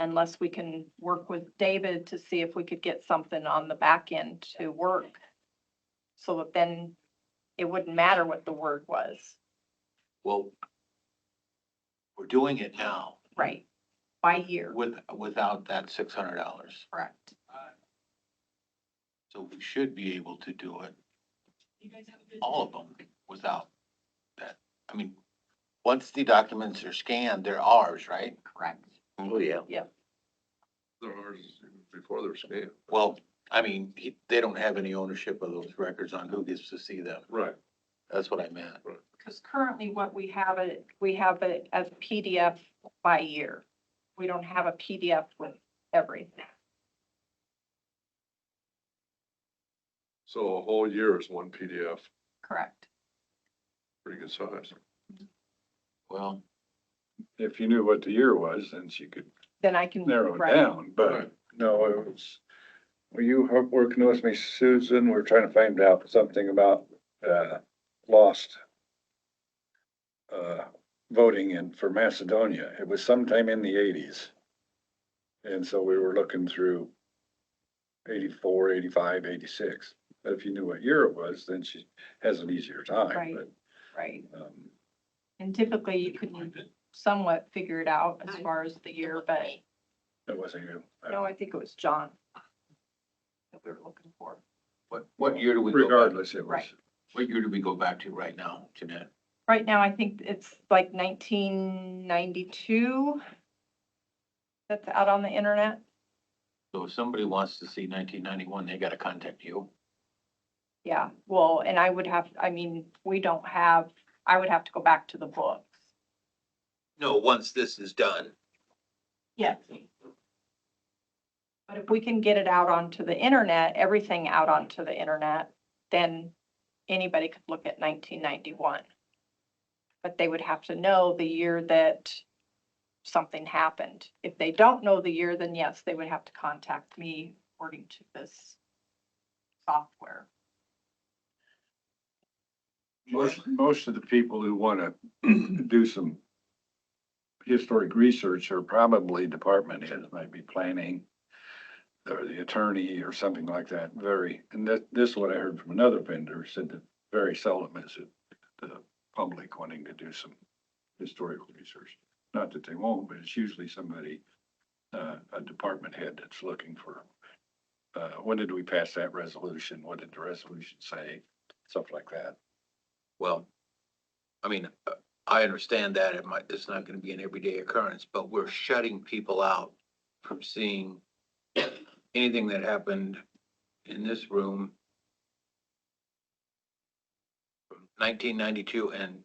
unless we can work with David to see if we could get something on the back end to work. So that then it wouldn't matter what the word was, Well, we're doing it now right? By year, with, without that six hundred dollars. correct? So we should be able to do it, all of them, without that. I mean, once the documents are scanned, they're ours, right? Correct. Oh, yeah. They're ours before they're scanned. Well, I mean, he- they don't have any ownership of those records on who gets to see them. Right. That's what I meant. Because currently what we have it, we have it as PDF by year. We don't have a PDF with everything. So a whole year is one PDF, Correct. pretty good size. Well, if you knew what the year was, then she could Then I can. narrow it Mm, right. down, but Right. no, it was. Were you ho- working with me, Susan? We're trying to find out something about, uh, lost uh, voting in, for Macedonia. It was sometime in the eighties. And so we were looking through 84, 85, 86. But if you knew what year it was, then she has an easier Right. time, but, Right. um, And typically you can somewhat figure it out as far as the year, but it wasn't uh, you. no, I think it was John that we were looking for. what, what year do we go back? Regardless, it was. Right. What year do we go back to right now, Jeanette? Right now, I think it's like nineteen ninety-two that's out on the internet. So if somebody wants to see nineteen ninety-one, they gotta contact you. Yeah, well, and I would have, I mean, we don't have, I would have to go back to the books. No, once this is done. Yes. But if we can get it out onto the internet, everything out onto the internet, then anybody could look at nineteen ninety-one. But they would have to know the year that something happened. If they don't know the year, then yes, they would have to contact me according to this software. Most, most of the people who want to do some historic research are probably department heads, might be planning or the attorney or something like that, very, and that, this is what I heard from another vendor, said that very seldom is it the public wanting to do some historical research. Not that they won't, but it's usually somebody, uh, a department head that's looking for, uh, when did we pass that resolution? What did the resolution say? Stuff like that. Well, I mean, uh, I understand that it might, it's not gonna be an everyday occurrence, but we're shutting people out from seeing anything that happened in this room from nineteen ninety-two and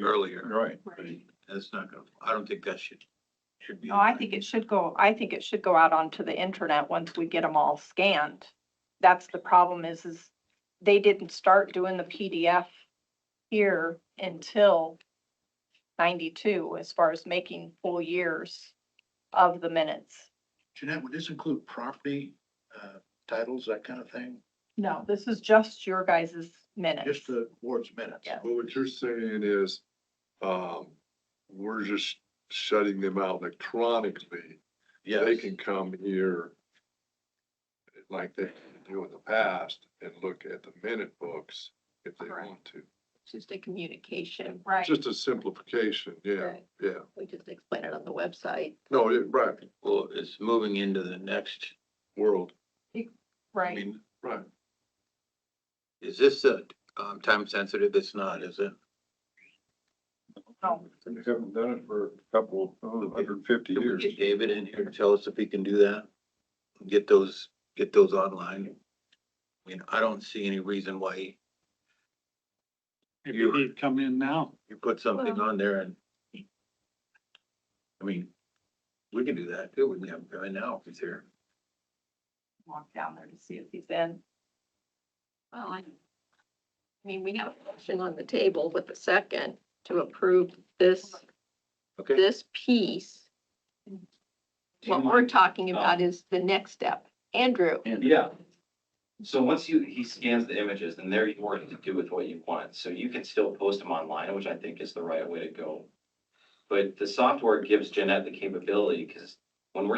earlier. Right. Right. That's not gonna, I don't think that should, should be. No, Oh, I think it should go, I think it should go out onto the internet once we get them all scanned. That's the problem is, is they didn't start doing the PDF here until ninety-two, as far as making full years of the minutes. Jeanette, would this include property, uh, titles, that kind of thing? No, this is just your guys' minutes. Just the board's minutes? Yeah. Well, what you're saying is, um, we're just shutting them out electronically. They can come here like they do in the past and look at the minute books if they Correct. want to. It's just a communication. Right. Just a simplification, yeah, Right. yeah. We just explain it on the website. No, it- right, Well, it's moving into the next world, I Right. mean, right. is this a, um, time sensitive? It's not, is it? No. We haven't done it for a couple, oh, hundred and fifty Can we years. get David in here to tell us if he can do that? Get those, get those online? I mean, I don't see any reason why Maybe he'd come in now. you put something Well- on there and I mean, we can do that too. We can have him come in now if he's here. Walk down there to see if he's in. Well, I I mean, we have a motion on the table with a second to approve this, Okay, this piece. Do you What mind- we're talking about is the next step. Andrew, Yeah. So once you, he scans the images and there you are to do with what you want. So you can still post them online, which I think is the right way to go. But the software gives Jeanette the capability, because when we're